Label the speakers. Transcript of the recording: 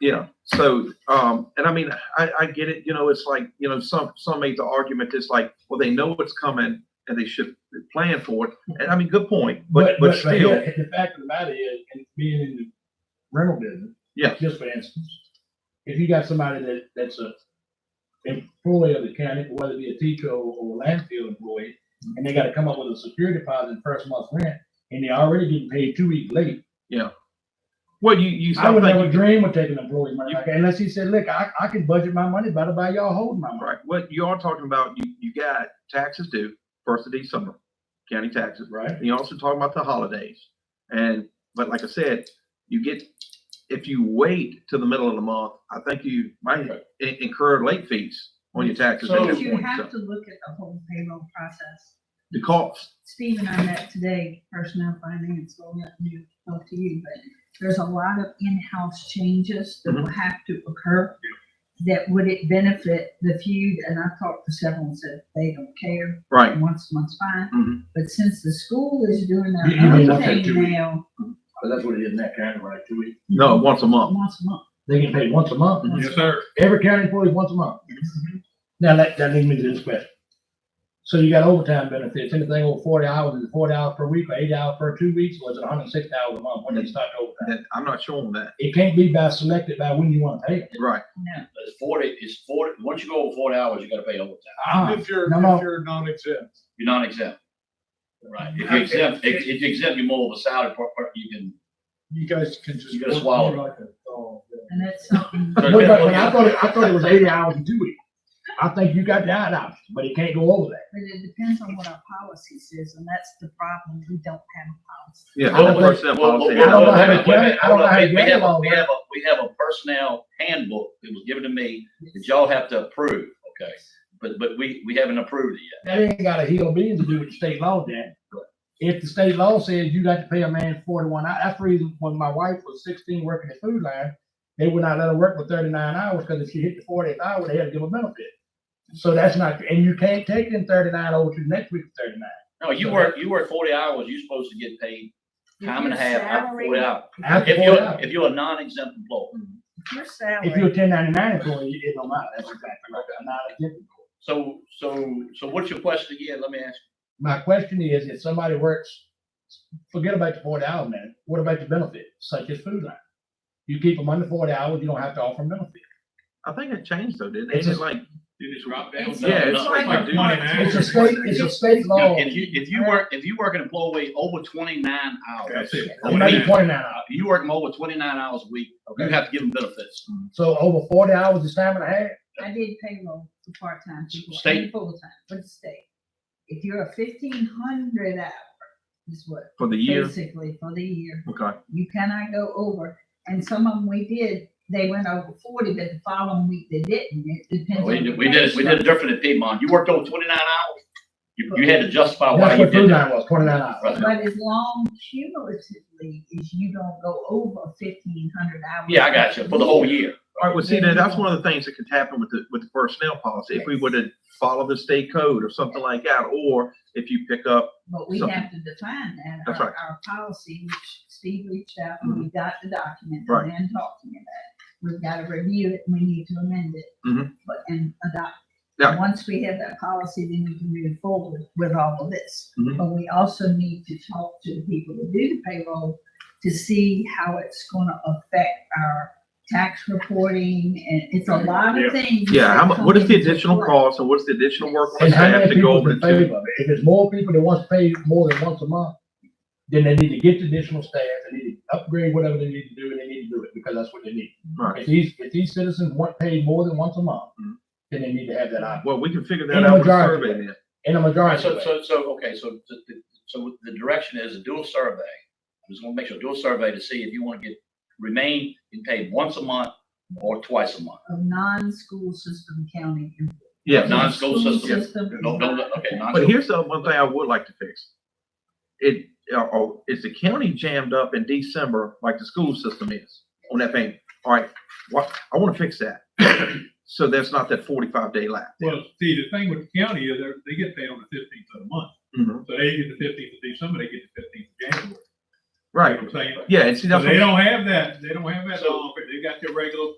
Speaker 1: Yeah. So, um, and I mean, I, I get it. You know, it's like, you know, some, some make the argument that's like, well, they know it's coming and they should plan for it. And I mean, good point, but, but still,
Speaker 2: yeah, The fact of the matter is, and being in the rental business.
Speaker 1: Yeah.
Speaker 2: Just for instance, if you got somebody that, that's a employee of the county, whether it be a teacher or, or a landfill employee, and they gotta come up with a security deposit and first month's rent, and they're already getting paid two weeks late.
Speaker 1: well, you, you,
Speaker 2: I
Speaker 1: stop
Speaker 2: would never
Speaker 1: thinking-
Speaker 2: dream of taking employee money like that unless he said, look, I, I can budget my money, but I buy y'all holding my money.
Speaker 1: right. What you are talking about, you, you got taxes due first of December, county taxes.
Speaker 2: Right.
Speaker 1: And you also talk about the holidays. And, but like I said, you get, if you wait till the middle of the month, I think you might in- incur late fees on your taxes at
Speaker 2: So-
Speaker 1: that
Speaker 3: But you
Speaker 1: point.
Speaker 3: have
Speaker 1: So
Speaker 3: to look at the whole payroll process.
Speaker 1: The cost,
Speaker 3: Steve and I met today, personnel finance, well, not new, not to you, but there's a lot of in-house changes that
Speaker 2: Mm-hmm.
Speaker 3: will have to occur. That would it benefit the few, and I talked to several and said they don't care,
Speaker 1: right.
Speaker 3: once, once fine.
Speaker 1: Mhm.
Speaker 3: But since the school is doing
Speaker 2: Mm-hmm. You- you don't
Speaker 3: their own
Speaker 2: want that to be-
Speaker 3: thing now,
Speaker 2: But that's what it is in that county, right, two weeks.
Speaker 1: No, once a month.
Speaker 3: once a month.
Speaker 2: They get paid once a month.
Speaker 1: Mhm.
Speaker 4: Yes, sir. Mm-hmm.
Speaker 2: Every county employee once a month. Now, that, that leads me to this question. So you got overtime benefits, anything over forty hours, is it forty hours per week, or eight hours per two weeks, or is it hundred and sixty hours a month when they start overtime?
Speaker 1: And I'm not sure on that.
Speaker 2: It can't be by selected by when you wanna pay it.
Speaker 1: Right.
Speaker 3: No,
Speaker 5: But it's forty, it's forty, once you go over forty hours, you gotta pay overtime.
Speaker 2: Ah,
Speaker 4: If you're,
Speaker 2: no, no.
Speaker 4: if you're non-exempt.
Speaker 5: You're not exempt. Right, if you're exempt, if, if you're exempt, you're more of a salary per, per- you can,
Speaker 4: You guys can just.
Speaker 5: You gotta swallow it.
Speaker 4: Like a dog, yeah.
Speaker 3: And that's something,
Speaker 2: but, but but I thought, it- I thought it was eighty hours in two weeks. I think you got that option, but it can't go over that.
Speaker 3: but it depends on what our policy says, and that's the problem, we don't have a policy.
Speaker 1: Yeah.
Speaker 2: Oh,
Speaker 5: I don't
Speaker 1: the
Speaker 5: think-
Speaker 1: personnel
Speaker 5: Well, well,
Speaker 1: policy.
Speaker 5: well,
Speaker 2: I don't know how to
Speaker 1: uh,
Speaker 5: wait a minute,
Speaker 2: get it. I don't know how to
Speaker 5: wait a minute. We
Speaker 2: get it
Speaker 5: have a,
Speaker 2: all
Speaker 5: we
Speaker 2: the way.
Speaker 5: have a, we have a personnel handbook that was given to me that y'all have to approve, okay? But, but we, we haven't approved it yet.
Speaker 2: That ain't got a hill beans to do with the state law, Dan. If the state law says you got to pay a man forty-one, hours, that's the reason when my wife was sixteen working at food line, they would not let her work for thirty-nine hours, because if she hit the fortieth hour, they had to give her benefit. So that's not, and you can't take in thirty-nine over to the next week for thirty-nine.
Speaker 5: No, you work, you work forty hours, you're supposed to get paid time and a half after forty hours.
Speaker 2: After
Speaker 5: If
Speaker 2: 40
Speaker 5: you're,
Speaker 2: hours.
Speaker 5: if you're a non-exempt employee.
Speaker 3: Your
Speaker 2: If you're a
Speaker 3: salary,
Speaker 2: ten ninety-nine employee, it don't matter, that's exactly right, I'm not a different. employee.
Speaker 5: So, so, so what's your question again? Let me ask.
Speaker 2: My question is, if somebody works, forget about the forty hour man, what about the benefit, such as food line? You keep them under forty hours, you don't have to offer them benefit.
Speaker 1: I think it changed though, didn't it?
Speaker 2: It's
Speaker 1: It's
Speaker 2: just-
Speaker 1: like,
Speaker 4: You just drop
Speaker 3: down. It's-
Speaker 4: No,
Speaker 1: yeah,
Speaker 5: no,
Speaker 1: it's like
Speaker 4: like
Speaker 1: you do.
Speaker 4: money,
Speaker 2: It's a state, it's a state law,
Speaker 5: If you, if you work, if you work an employee over twenty-nine hours,
Speaker 4: That's it.
Speaker 2: It may be twenty-nine hours,
Speaker 5: if you work them over twenty-nine hours a week, you have to give them benefits.
Speaker 2: so over forty hours is time and a half,
Speaker 3: I did payroll for part-time people and
Speaker 5: State.
Speaker 3: full-time for the state. If you're a fifteen hundred hour is what,
Speaker 1: for the year.
Speaker 3: basically for the year,
Speaker 1: Okay.
Speaker 3: you cannot go over. And some of them we did, they went over forty, but the following week they didn't. It depends.
Speaker 5: We
Speaker 3: on the
Speaker 5: did, we did, we
Speaker 3: pay
Speaker 5: did it different at Piedmont. You worked over twenty-nine hours. You, you had to justify why
Speaker 2: that's
Speaker 5: you
Speaker 2: what food
Speaker 5: did that.
Speaker 2: line was, twenty-nine hours.
Speaker 3: structure. But as long cumulatively as you don't go over fifteen hundred hours.
Speaker 5: Yeah, I got you, for the whole year.
Speaker 1: All right, well, see, now, that's one of the things that could happen with the, with the personnel policy. If we would have followed the state code or something like that, or if you pick up,
Speaker 3: But we
Speaker 1: So-
Speaker 3: have to define that.
Speaker 1: That's
Speaker 3: Our-
Speaker 1: right. Mm-hmm.
Speaker 3: Our policy, which Steve reached out and we got the document
Speaker 1: Right.
Speaker 3: and then talked to me about it. We've got to review it and we need to amend it.
Speaker 1: Mhm.
Speaker 3: But, and adopt.
Speaker 1: Yeah.
Speaker 3: Once we have that policy, then we can move forward with all of this.
Speaker 1: Mhm.
Speaker 3: But we also need to talk to the people who do the payroll to see how it's gonna affect our tax reporting and it's a lot of things.
Speaker 1: yeah, how
Speaker 3: that
Speaker 1: mu, what is
Speaker 3: come
Speaker 1: the
Speaker 3: into
Speaker 1: additional
Speaker 3: play.
Speaker 1: cost and what's the additional work on
Speaker 2: And how
Speaker 1: staff
Speaker 2: many
Speaker 1: to go
Speaker 2: people
Speaker 1: over
Speaker 2: in
Speaker 1: the two?
Speaker 2: favor of it? If it's more people that wants to pay more than once a month, then they need to get the additional staff, they need to upgrade whatever they need to do, and they need to do it, because that's what they need.
Speaker 1: Right.
Speaker 2: If these, if these citizens want paid more than once a month,
Speaker 1: Mhm.
Speaker 2: then they need to have that option,
Speaker 1: Well, we can figure that
Speaker 2: And
Speaker 1: out with the
Speaker 2: majority.
Speaker 1: survey then.
Speaker 2: in a majority.
Speaker 5: So,
Speaker 2: way.
Speaker 5: so, so, okay, so, the- the- so the direction is a dual survey. I just wanna make sure, dual survey to see if you wanna get, remain and paid once a month or twice a month.
Speaker 3: Of non-school system county employees.
Speaker 1: Yeah.
Speaker 5: Non-school system.
Speaker 3: System.
Speaker 5: No, no, no, okay, not.
Speaker 1: But here's the one thing I would like to fix. It, uh, oh, is the county jammed up in December like the school system is on that thing? All right, what, I wanna fix that. So that's not that forty-five day lapse.
Speaker 4: Well, see, the thing with the county is they're, they get paid on the fifteenth of the month.
Speaker 1: Mhm.
Speaker 4: So they get the fifteenth of December, they get the fifteenth of January. you know
Speaker 1: right.
Speaker 4: what I'm saying?
Speaker 1: Yeah, and see,
Speaker 4: So
Speaker 1: that's,
Speaker 4: they
Speaker 1: what-
Speaker 4: don't have that, they don't have that law, but they got their regular